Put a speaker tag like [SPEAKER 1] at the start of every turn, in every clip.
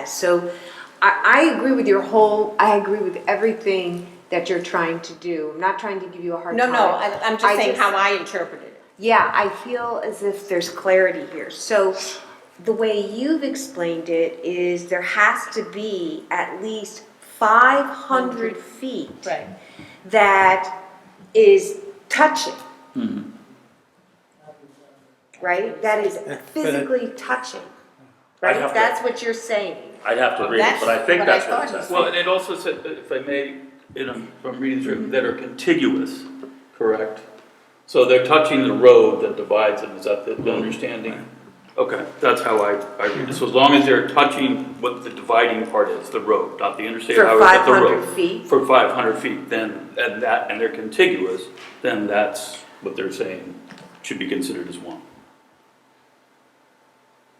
[SPEAKER 1] has. So I, I agree with your whole, I agree with everything that you're trying to do. I'm not trying to give you a hard
[SPEAKER 2] No,
[SPEAKER 1] time.
[SPEAKER 2] no, I, I'm just
[SPEAKER 1] I
[SPEAKER 2] saying
[SPEAKER 1] just-
[SPEAKER 2] how I interpreted it.
[SPEAKER 1] Yeah, I feel as if there's clarity here. So the way you've explained it is there has to be at least 500 feet
[SPEAKER 2] Mm-hmm. Right.
[SPEAKER 1] that is touching.
[SPEAKER 3] Mm-hmm.
[SPEAKER 1] Right? That is physically touching. Right?
[SPEAKER 3] have to-
[SPEAKER 1] That's what you're saying.
[SPEAKER 3] I'd have to read it,
[SPEAKER 2] That's
[SPEAKER 3] but I think
[SPEAKER 2] what I
[SPEAKER 3] that's what it
[SPEAKER 2] thought he
[SPEAKER 3] says.
[SPEAKER 4] Well, and it also said, uh, if I may, and I'm, I'm reading through, that are contiguous, correct? So they're touching the road that divides them, is that the the understanding? Mm-hmm. Okay, that's how I, I read it, so as long as they're touching what the dividing part is, the road, not the interstate
[SPEAKER 1] For
[SPEAKER 4] highway, but the
[SPEAKER 1] 500
[SPEAKER 4] road.
[SPEAKER 1] feet?
[SPEAKER 4] For five hundred feet, then, and that, and they're contiguous, then that's what they're saying should be considered as one.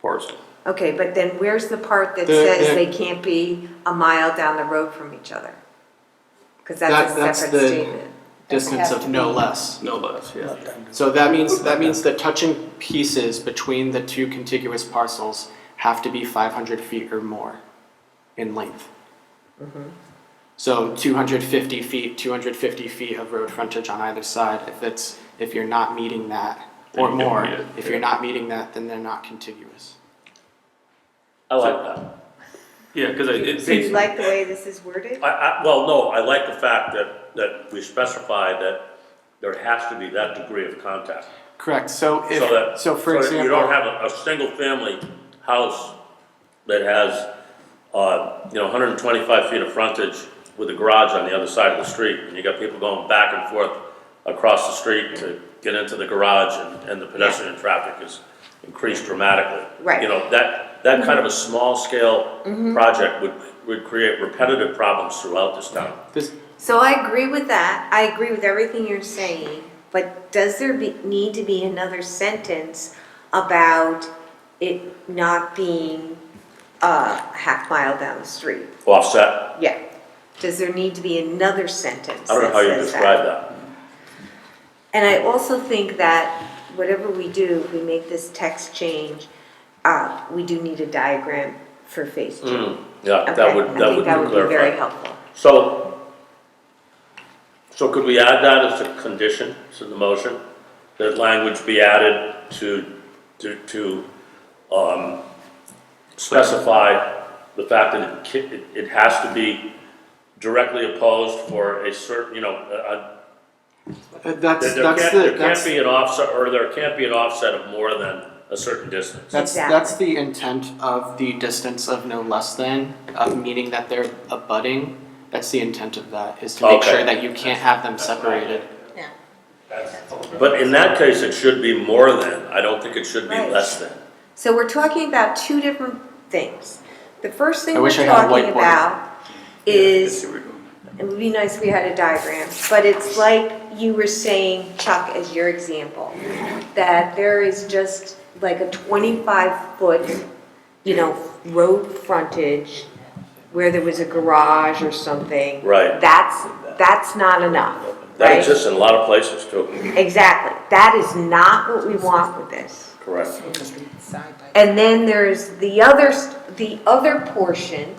[SPEAKER 4] Parcel.
[SPEAKER 1] Okay, but then where's the part that
[SPEAKER 5] The-
[SPEAKER 1] says
[SPEAKER 5] the-
[SPEAKER 1] they can't be a mile down the road from each other? Because that's
[SPEAKER 5] That-
[SPEAKER 1] a
[SPEAKER 5] that's
[SPEAKER 1] separate
[SPEAKER 5] the-
[SPEAKER 1] statement.
[SPEAKER 5] distance of no less.
[SPEAKER 4] No less, yeah.
[SPEAKER 5] So that means, that means the touching pieces between the two contiguous parcels have to be five hundred feet or more in length. So two hundred fifty feet, two hundred fifty feet of road frontage on either side, if it's, if you're not meeting that,
[SPEAKER 4] Then
[SPEAKER 5] or
[SPEAKER 4] you don't
[SPEAKER 5] more,
[SPEAKER 4] meet it,
[SPEAKER 5] if you're not meeting that, then they're not contiguous.
[SPEAKER 3] I like that.
[SPEAKER 4] Yeah, cause I, it.
[SPEAKER 1] So you like the way this is worded?
[SPEAKER 3] I, I, well, no, I like the fact that, that we specify that there has to be that degree of contact.
[SPEAKER 5] Correct, so
[SPEAKER 3] So
[SPEAKER 5] if,
[SPEAKER 3] that,
[SPEAKER 5] so
[SPEAKER 3] so
[SPEAKER 5] for
[SPEAKER 3] that
[SPEAKER 5] example.
[SPEAKER 3] you don't have a, a single family house that has, uh, you know, hundred and twenty-five feet of frontage with a garage on the other side of the street, and you got people going back and forth across the street to get into the garage, and, and the pedestrian traffic is increased dramatically.
[SPEAKER 1] Right. Mm-hmm.
[SPEAKER 3] You know, that, that kind of a small-scale project would, would create repetitive problems throughout this town.
[SPEAKER 5] This,
[SPEAKER 1] So I agree with that. I agree with everything you're saying, but does there be, need to be another sentence about it not being uh, a half mile down the street?
[SPEAKER 3] Offset,
[SPEAKER 1] Yeah. Does there need to be another sentence?
[SPEAKER 3] I don't know
[SPEAKER 1] that
[SPEAKER 3] how you
[SPEAKER 1] says that?
[SPEAKER 3] describe that.
[SPEAKER 1] And I also think that whatever we do, if we make this text change, uh, we do need a diagram for phase two.
[SPEAKER 3] Yeah,
[SPEAKER 1] Okay,
[SPEAKER 3] Mm. that would,
[SPEAKER 1] I
[SPEAKER 3] that
[SPEAKER 1] think
[SPEAKER 3] would
[SPEAKER 1] that would be very
[SPEAKER 3] clarify.
[SPEAKER 1] helpful.
[SPEAKER 3] So, so could we add that as a condition to the motion? That language be added to, to, to, um, specify the fact that it ca- it, it has to be directly opposed for a certain, you know, uh,
[SPEAKER 5] uh, that's,
[SPEAKER 3] that there
[SPEAKER 5] that's
[SPEAKER 3] can't,
[SPEAKER 5] the,
[SPEAKER 3] there
[SPEAKER 5] that's
[SPEAKER 3] can't be an offset, or there can't be an offset of more than a certain distance.
[SPEAKER 5] That's,
[SPEAKER 1] Exactly.
[SPEAKER 5] that's the intent of the distance of no less than, of meaning that they're abutting. That's the intent of that, is to make
[SPEAKER 3] Okay.
[SPEAKER 5] sure that you can't have them separated.
[SPEAKER 2] Yeah.
[SPEAKER 3] But in that case, it should be more than, I don't think it should be
[SPEAKER 1] Right.
[SPEAKER 3] less than.
[SPEAKER 1] So we're talking about two different things. The first thing
[SPEAKER 5] I
[SPEAKER 1] we're
[SPEAKER 5] wish I had a
[SPEAKER 1] talking
[SPEAKER 5] whiteboard.
[SPEAKER 1] about
[SPEAKER 4] That's
[SPEAKER 1] is,
[SPEAKER 4] what we're doing.
[SPEAKER 1] it would be nice if we had a diagram, but it's like you were saying, Chuck, as your example, that there is just like a twenty-five foot, you know, road frontage where there was a garage or something.
[SPEAKER 3] Right.
[SPEAKER 1] That's, that's not enough,
[SPEAKER 3] That
[SPEAKER 1] right?
[SPEAKER 3] exists in a lot of places too.
[SPEAKER 1] Exactly. That is not what we want with this.
[SPEAKER 3] Correct.
[SPEAKER 1] And then there's the other, st- the other portion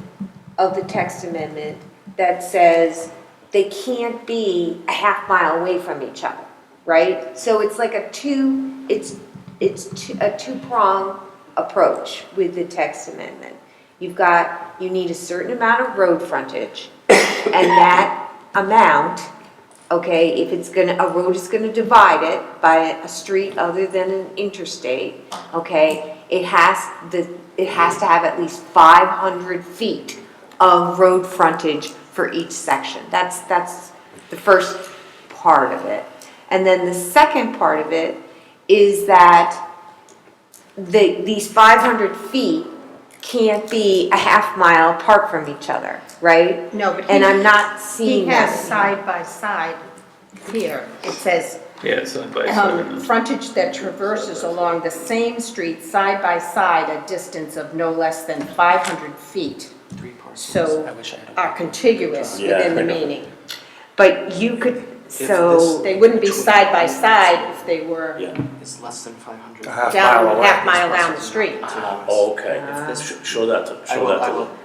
[SPEAKER 1] of the text amendment that says they can't be a half mile away from each other, right? So it's like a two, it's, it's two- a two-prong approach with the text amendment. You've got, you need a certain amount of road frontage, and that amount, okay, if it's gonna, a road is gonna divide it by a street other than an interstate, okay, it has, the, it has to have at least five hundred feet of road frontage for each section. That's, that's the first part of it. And then the second part of it is that the, these five hundred feet can't be a half mile apart from each other, right?
[SPEAKER 2] No, but he-
[SPEAKER 1] And I'm not
[SPEAKER 2] He
[SPEAKER 1] seeing
[SPEAKER 2] has
[SPEAKER 1] that.
[SPEAKER 2] side by side here, it says,
[SPEAKER 4] Yeah, side by
[SPEAKER 2] um,
[SPEAKER 4] side.
[SPEAKER 2] frontage that traverses along the same street side by side a distance of no less than five hundred feet.
[SPEAKER 5] Three parcels.
[SPEAKER 2] So
[SPEAKER 5] I wish I had a-
[SPEAKER 2] are contiguous
[SPEAKER 3] Yeah,
[SPEAKER 2] within the
[SPEAKER 3] I know.
[SPEAKER 2] meaning.
[SPEAKER 1] But you could,
[SPEAKER 5] this-
[SPEAKER 1] so,
[SPEAKER 2] They wouldn't be side by side if they were
[SPEAKER 3] Yeah,
[SPEAKER 5] It's less than five hundred.
[SPEAKER 6] A half mile
[SPEAKER 2] down,
[SPEAKER 6] away.
[SPEAKER 2] half mile down the street.
[SPEAKER 3] okay,
[SPEAKER 5] Ah.
[SPEAKER 3] Sh- show that to,
[SPEAKER 5] I
[SPEAKER 3] Oh, show
[SPEAKER 5] will,
[SPEAKER 3] that
[SPEAKER 5] I
[SPEAKER 3] to
[SPEAKER 5] will.
[SPEAKER 3] them.